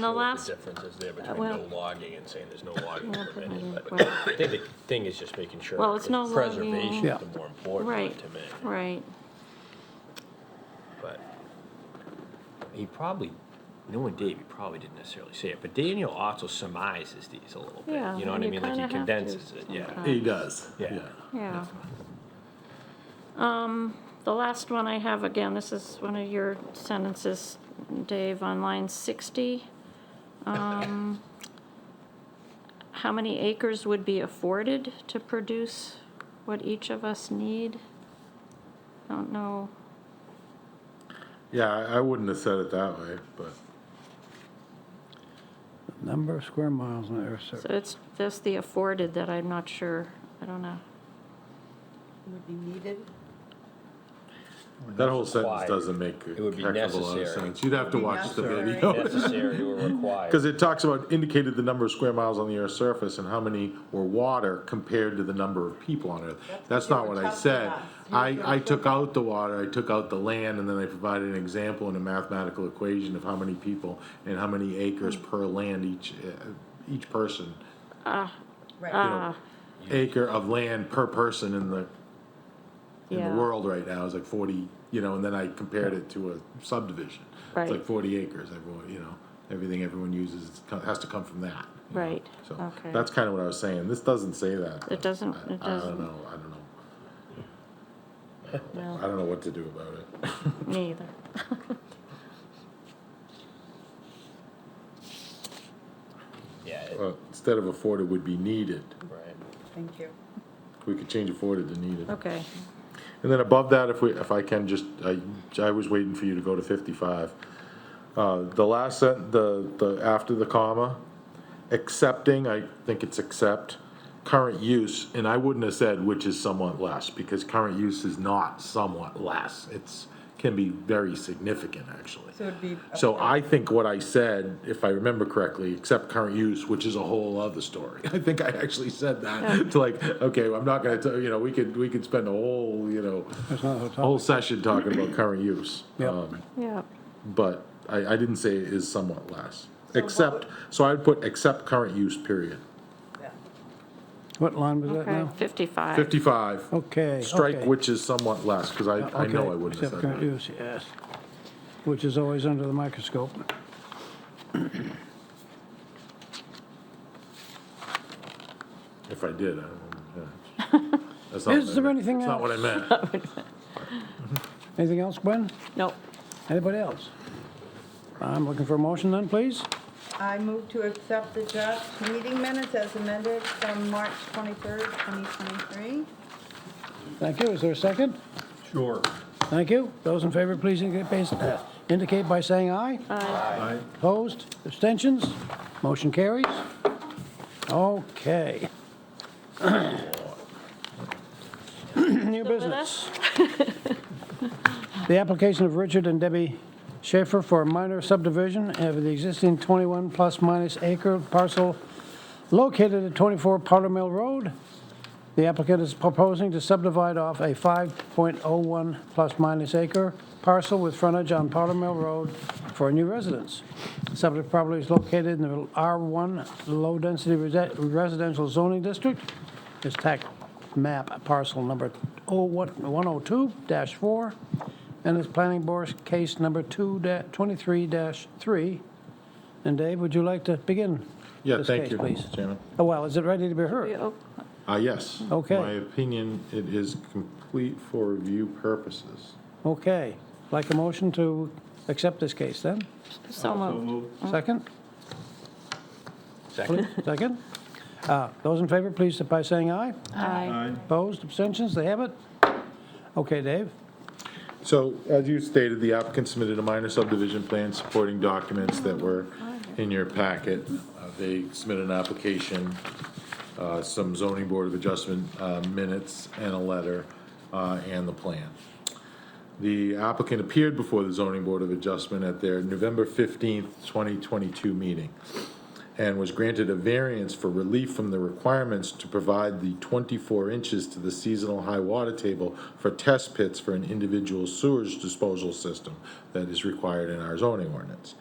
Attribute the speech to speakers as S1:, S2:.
S1: not
S2: the
S1: sure what
S2: last-
S1: the difference is there between
S2: well-
S1: no logging and saying there's no logging
S2: Yeah, put that in,
S1: permitted. But
S2: right.
S1: I think the thing is just making sure.
S2: Well, it's
S1: that
S2: no logging.
S1: Preservation
S3: Yeah.
S1: is the more important one
S2: Right,
S1: to me,
S2: right.
S1: but he probably, knowing Dave, he probably didn't necessarily say it, but Daniel also surmises these a little bit.
S2: Yeah,
S1: You know what
S2: and
S1: I
S2: you
S1: mean? Like he
S2: kinda have to
S1: condenses it, yeah.
S2: sometimes.
S3: He does.
S1: Yeah.
S2: Yeah. Um, The last one I have, again, this is one of your sentences, Dave, on line 60. Um, How many acres would be afforded to produce what each of us need? Don't know.
S4: Yeah, I, I wouldn't have said it that way, but
S3: Number of square miles on the Earth's
S2: So
S3: surface.
S2: it's just the afforded that I'm not sure, I don't know.
S5: would be needed.
S4: that whole sentence
S1: Required.
S4: doesn't make a
S1: It would be
S4: heck of a lot of
S1: necessary.
S4: sense. You'd have to
S5: Be
S4: watch the
S5: necessary.
S4: video.
S1: Necessary or required.
S4: Because it talks about indicated the number of square miles on the Earth's surface and how many were water compared to the number of people on Earth. That's
S5: you
S4: not
S5: were
S4: what I
S5: talking
S4: said.
S5: about. You were
S4: I, I
S5: talking
S4: took out the water, I took out the land, and then I provided an example and a mathematical equation of how many people and how many acres per land each, uh, each person. you
S5: Right.
S4: know, Acre of land per person in the in
S2: Yeah.
S4: the world right now is like 40, you know, and then I compared it to a subdivision.
S2: Right.
S4: It's like 40 acres. Everyone, you know, everything everyone uses is- co- has to come from that. you know?
S2: Right,
S4: So
S2: okay.
S4: that's kind of what I was saying. This doesn't say that. but
S2: doesn't-
S4: I,
S2: it
S4: I
S2: doesn't.
S4: don't know. I don't know. I
S2: No,
S4: don't know what to do about it.
S2: me either.
S1: Yeah, it-
S4: Well, instead of afforded would be needed.
S1: right.
S5: Thank you.
S4: We could change afforded to needed.
S2: Okay,
S4: And then above that, if we, if I can just, I, I was waiting for you to go to fifty-five. Uh, the last sent, the, the, after the comma, accepting, I think it's accept, current use, and I wouldn't have said which is somewhat less, because current use is not somewhat less. It's, can be very significant, actually.
S5: So it'd be.
S4: So I think what I said, if I remember correctly, except current use, which is a whole other story. I think I actually said that to like, okay, I'm not gonna, tell you know, we could, we could spend a whole, you know,
S3: That's not a
S4: whole
S3: topic.
S4: session talking about current use.
S3: Yep.
S4: Um,
S2: yeah,
S4: But I, I didn't say it is somewhat less, except, so I'd put except current use, period.
S5: Yeah.
S3: What line was that
S2: okay,
S3: now?
S2: 55.
S4: Fifty-five,
S3: Okay.
S4: strike
S3: okay.
S4: which is somewhat less, because I, I
S3: Okay,
S4: know I wouldn't have
S3: except
S4: said
S3: current
S4: that.
S3: use, yes. Which is always under the microscope.
S4: If I did, I don't, yeah. That's not
S3: Is
S4: what I
S3: there
S4: meant.
S3: anything
S4: That's not what I meant.
S3: Anything else, Gwen?
S2: Nope,
S3: Anybody else? I'm looking for a motion then, please.
S5: I move to accept the draft meeting minutes as amended from March 23rd, 2023.
S3: Thank you. Is there a second?
S6: Sure.
S3: Thank you. Those in favor, please indicate uh, indicate by saying aye. Aye. Opposed? Abstentions? Motion carries. Okay. New business. The application of Richard and Debbie Schaefer for a minor subdivision of the existing 21 plus minus acre parcel located at 24 Powder Mill Road. The applicant is proposing to subdivide off a 5.01 plus minus acre parcel with frontage on Powder Mill Road for a new residence. Subject property is located in the R1 Low Density Resi- Residential Zoning District. It's tax map parcel number 102-4, and it's planning board's case number 2-23-3. And Dave, would you like to begin?
S4: Yeah,
S3: this
S4: thank
S3: case,
S4: you,
S3: please?
S4: Chairman.
S3: Oh, well, is it ready to be heard?
S2: We op-
S4: Uh, yes.
S3: Okay.
S4: My opinion, it is complete for review purposes.
S3: Okay, like a motion to accept this case then?
S2: so moved.
S3: Second?
S1: Second?
S3: Second? Uh, Those in favor, please, by saying aye.
S2: Aye.
S3: Opposed, abstentions, they have it? Okay, Dave?
S4: So as you stated, the applicant submitted a minor subdivision plan supporting documents that were in your packet. Uh, They submitted an application, uh, some zoning board of adjustment uh, minutes and a letter uh, and the plan. The applicant appeared before the zoning board of adjustment at their November 15th, 2022 meeting and was granted a variance for relief from the requirements to provide the 24 inches to the seasonal high water table for test pits for an individual sewage disposal system that is required in our zoning ordinance.